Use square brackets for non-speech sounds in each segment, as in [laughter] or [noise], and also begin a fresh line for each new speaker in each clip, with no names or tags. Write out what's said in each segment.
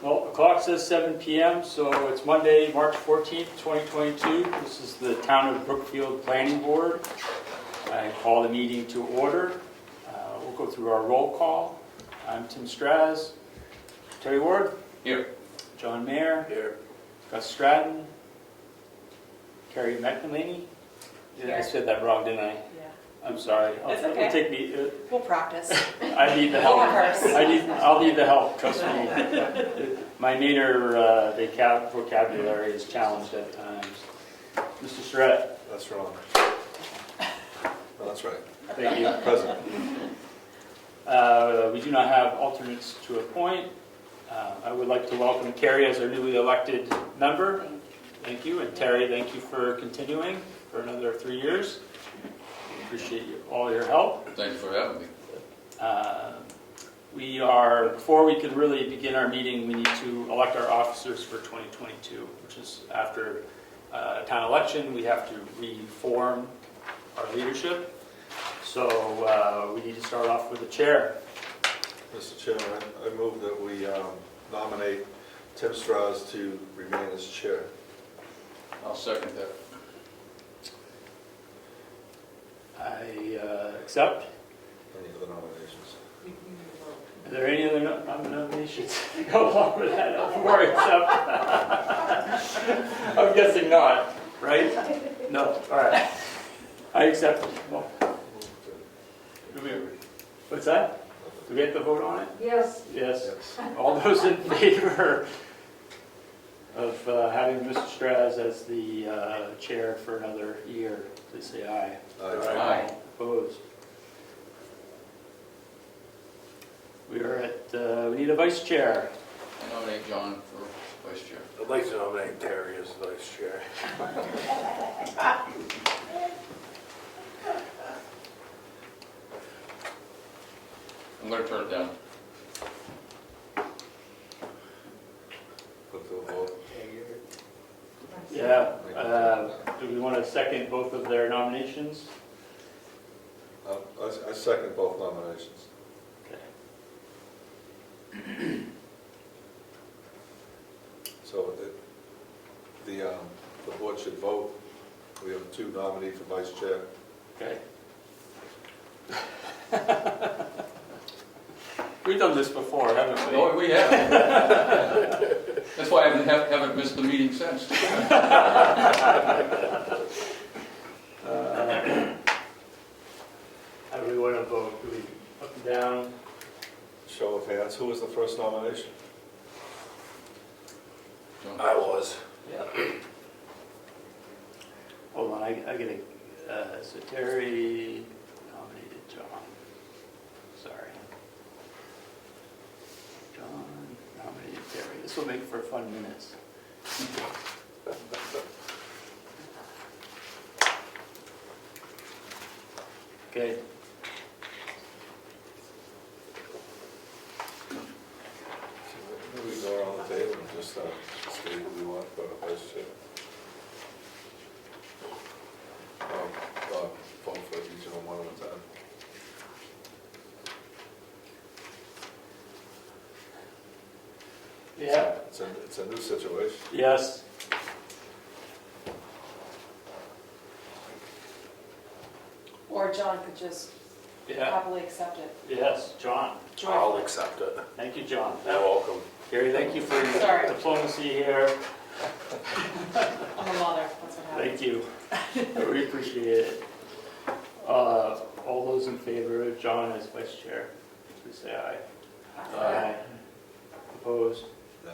clock says 7 PM, so it's Monday, March 14th, 2022. This is the Town of Brookfield Planning Board. I call the meeting to order. Uh, We'll go through our roll call. I'm Tim Straz. Terry Ward?
Here.
John Mayer?
Here.
Gus Stratton? Carrie McNamee? Yeah, I
Here.
said that wrong, didn't I?
Yeah,
I'm sorry. I'll-
That's
It'll
okay.
take me, uh, [laughs]
we'll practice.
I need the help.
We'll
[laughs]
rehearse.
I need, I'll need the help, trust me. My native uh, vocab- vocabulary is challenged at times. Mr. Surratt,
That's wrong. No, that's right.
thank you.
Present.
Uh, We do not have alternates to appoint. Uh, I would like to welcome Carrie as our newly elected member. Thank you, and Terry, thank you for continuing for another three years. Appreciate you- all your help.
Thanks for having me.
Uh, We are, before we can really begin our meeting, we need to elect our officers for 2022, which is after uh, a town election, we have to reform our leadership. So uh, we need to start off with the chair.
Mr. Chairman, I I move that we um, nominate Tim Strauss to remain as chair.
I'll second that.
I uh, accept.
Any other nominations?
Are there any other nom- nom- nominations [laughs] to go along with that before I accept? [laughs] I'm guessing not, right? No, all right. I accept. Well, do we- What's that? Do we have to vote on it?
Yes.
Yes.
Yes.
All those in favor of uh, having Mr. Straz as the uh, chair for another year, please say aye.
Aye.
Opposed? We are at, uh, we need a vice chair.
I nominate John for vice chair.
I'd like to nominate Terry as vice chair.
I'm gonna turn it down.
Put to a vote.
Yeah. uh, Do we want to second both of their nominations?
Um, I- I second both nominations. So it- the, um, the board should vote. We have two nominees for vice chair.
Okay. We've done this before, haven't we?
No, we have. [laughs] That's why I haven't, have- haven't missed the meeting since.
How do we want to vote? Do we up and down?
Show of hands, who was the first nomination?
John.
I was.
Yeah. Hold on, I, I gotta, uh, so Terry nominated John. Sorry. John nominated Terry. This will make for fun minutes. Okay.
Maybe we go around the table and just uh, state who we want for vice chair. Um, uh, Vote for each of them one at a time.
Yeah.
It's a, it's a new situation.
Yes.
Or John could just
Yeah.
happily accept it.
Yes, John.
I'll
Joyful.
accept it.
Thank you, John.
You're welcome.
Gary, thank you for your
Sorry.
diplomacy here.
I'm a mother, that's what
Thank
happens.
you. We appreciate it. Uh, All those in favor of John as vice chair, please say aye.
Aye.
Opposed?
Nay.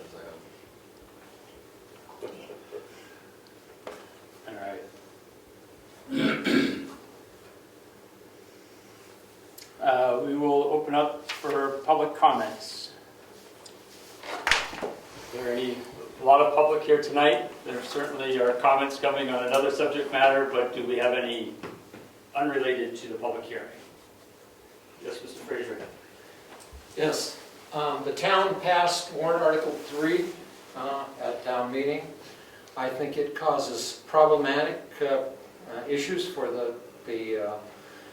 As I am.
All right. [clears throat] Uh, We will open up for public comments. There are any, a lot of public here tonight. There certainly are comments coming on another subject matter, but do we have any unrelated to the public hearing? Yes, Mr. Fraser.
Yes, um, the town passed warrant Article 3 uh, at town meeting. I think it causes problematic uh, uh, issues for the, the uh,